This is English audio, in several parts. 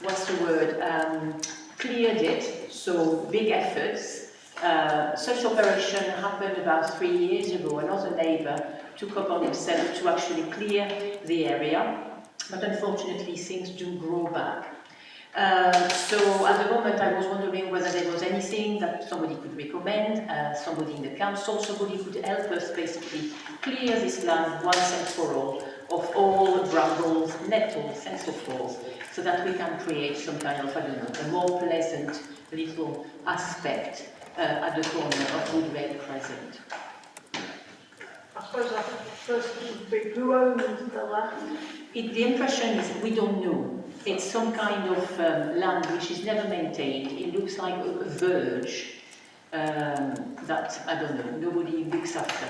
what's the word, um, cleared it, so big efforts. Uh, such operation happened about three years ago. Another neighbour took upon himself to actually clear the area, but unfortunately things do grow back. Uh, so at the moment I was wondering whether there was anything that somebody could recommend, uh, somebody in the council, somebody could help us basically clear this land once and for all of all brambles, nettles and so forth, so that we can create some kind of, I don't know, a more pleasant little aspect uh, at the corner of Woodway Crescent. I suppose I think the first thing would be who owns the land? It, the impression is we don't know. It's some kind of um, land which is never maintained. It looks like a a verge um, that, I don't know, nobody looks after.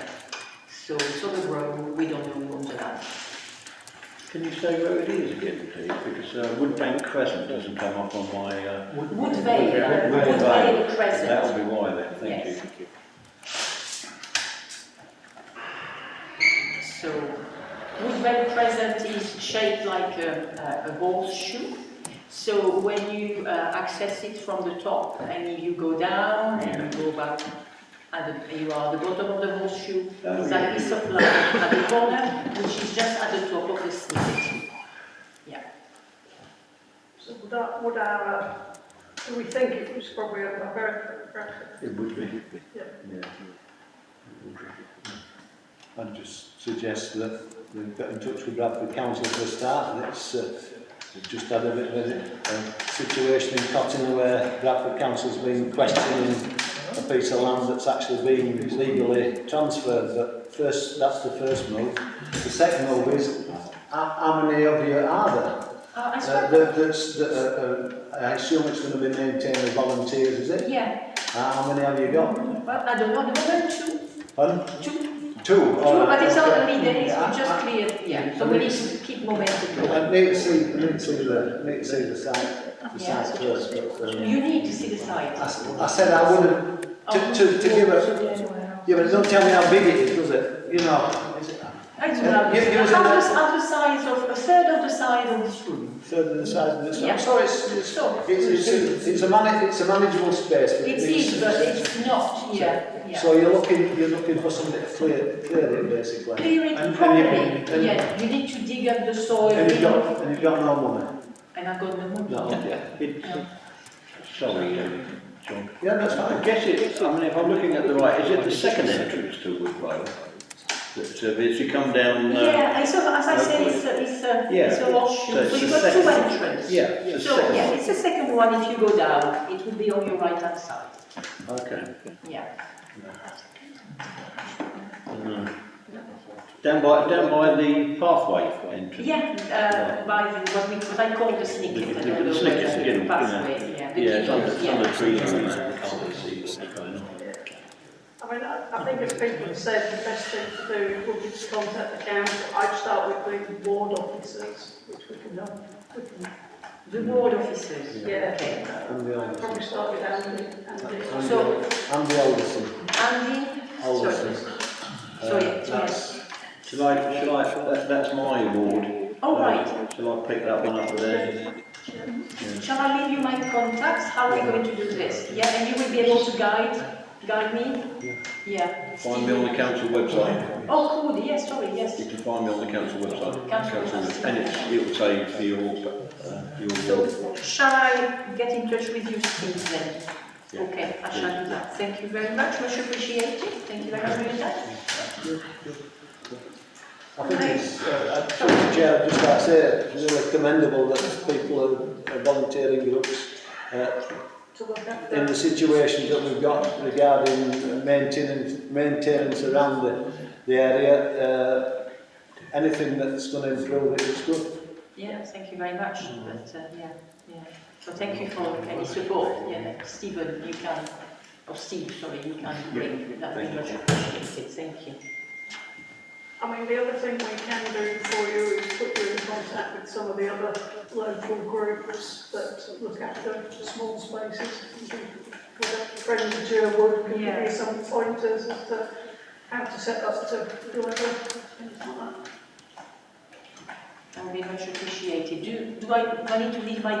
So it's overgrown, we don't know who owns the land. Can you say where it is again, please? Because uh, Woodbank Crescent doesn't come up on my. Uh, Wood Vale, uh, Wood Wood Vale. Vale Crescent. That'll be why then. Thank Yes. you. So Woodwell Crescent is shaped like a, a a horseshoe. So when you uh, access it from the top and you go down and you go back, and the, you are at the bottom of the horseshoe, Oh, is yeah. that piece of land at the corner, which is just at the top of the snippet. So would that, would our, uh, do we think it was probably a American reference? It would be. Yeah. Yeah. I'd just suggest that we get in touch with Bradford Council for a start, and it's, uh, we've just had a bit of a, a situation in Cottingley where Bradford Council's been questioning a piece of land that's actually been legally transferred, but first, that's the first move. The second move is, how, how many of you are there? Uh, I Uh, suppose, that, that's, that, uh, uh, I assume it's gonna be maintained by volunteers, is it? yeah, How how many have you got? well, I don't know, at the moment, two, Hun? two, Two? Oh, two, all right, but it's not okay. only days, Yeah, we I- just cleared, yeah, so we need to keep momentum going. I need to see, I need to see the, need to see the site, the Yeah. site first, but, um, You need to see the Oh. site. I, s- I said I wouldn't, to, to, to give a, yeah, but don't tell me how big it is, does it? You know, is it I do Yeah, have, you- you was in half the- the, half the size of, a third of the size of this room. further than the size of Yeah. this, so it's, it's, So, it's, it's, it's a man, it's a manageable space, but it it is, needs. but it's not, yeah, yeah. So you're looking, you're looking for something to clear, clear it basically. Clear it and- properly, and you- and- yeah, you need to dig up the soil. And you've got, and you've got no money, And I've got no money. no, Yeah. Sorry, um, John. yeah, that's I fine. guess it's, I mean, if I'm looking at the right, is it the second entrance to Wood Road? That, uh, if you come down, uh, Yeah, and so as I said, it's a, it's a, Yeah. it's a horseshoe, So it's so you've the got two second- entrances. yeah, it's the So, second. yeah, it's the second one, if you go down, it will be on your right hand side, Okay. yeah. Uh, Down by, down by the pathway entrance. Yeah, uh, by the, what we, what I call the snicket, I The- the- don't know the whether snicket, yeah, the yeah. pathway, yeah, the Yeah, it's on keyhole, the, it's yeah. on the tree line, I can't really see what's going on. I mean, I, I think as people have said, the best thing to do would be to contact the council. I'd start with the ward officers, which we can help, we can, The ward officers? Yeah. Okay. I'm the I'd oldest. probably start with Andy, Andy. I'm the So- oldest. I'm the oldest. one. Andy? Oldest. Sorry. one. Uh, Sorry, sorry. that's- Shall I, shall I, that, that's my award. All right. Uh, Shall I pick that one up there? Shall I leave you my contacts? How are we going to do this? Yeah, and you will be able to guide, guide me? Yeah. Find me on the council website. Oh, cool, yes, sorry, yes. You can find me on the council website. Council website. And it's, it'll say for your, uh, your award. So shall I get in touch with you, Steve, then? Yeah. Okay, I shall do that. Thank you very much, much appreciated. Thank you very much for your time. I think it's, uh, I- Mr. Chair, I'd just like to say, it's really commendable that people are- are volunteering groups uh, To look at in the the, situations that we've got regarding maintenance, maintenance around the, the area. Uh, anything that's going to improve it is good. Yeah, thank you very much, but, uh, yeah, yeah. So thank you for any support, yeah, Stephen, you can, or Steve, sorry, you can bring, that would be much appreciated, thank you. I mean, the other thing we can do for you is put you in contact with some of the other local groups that look after small spaces. Friends of Sherwood can give Yeah. you some pointers as to how to set up to whoever, things like that. That would be much appreciated. Do, do I, do I need to leave my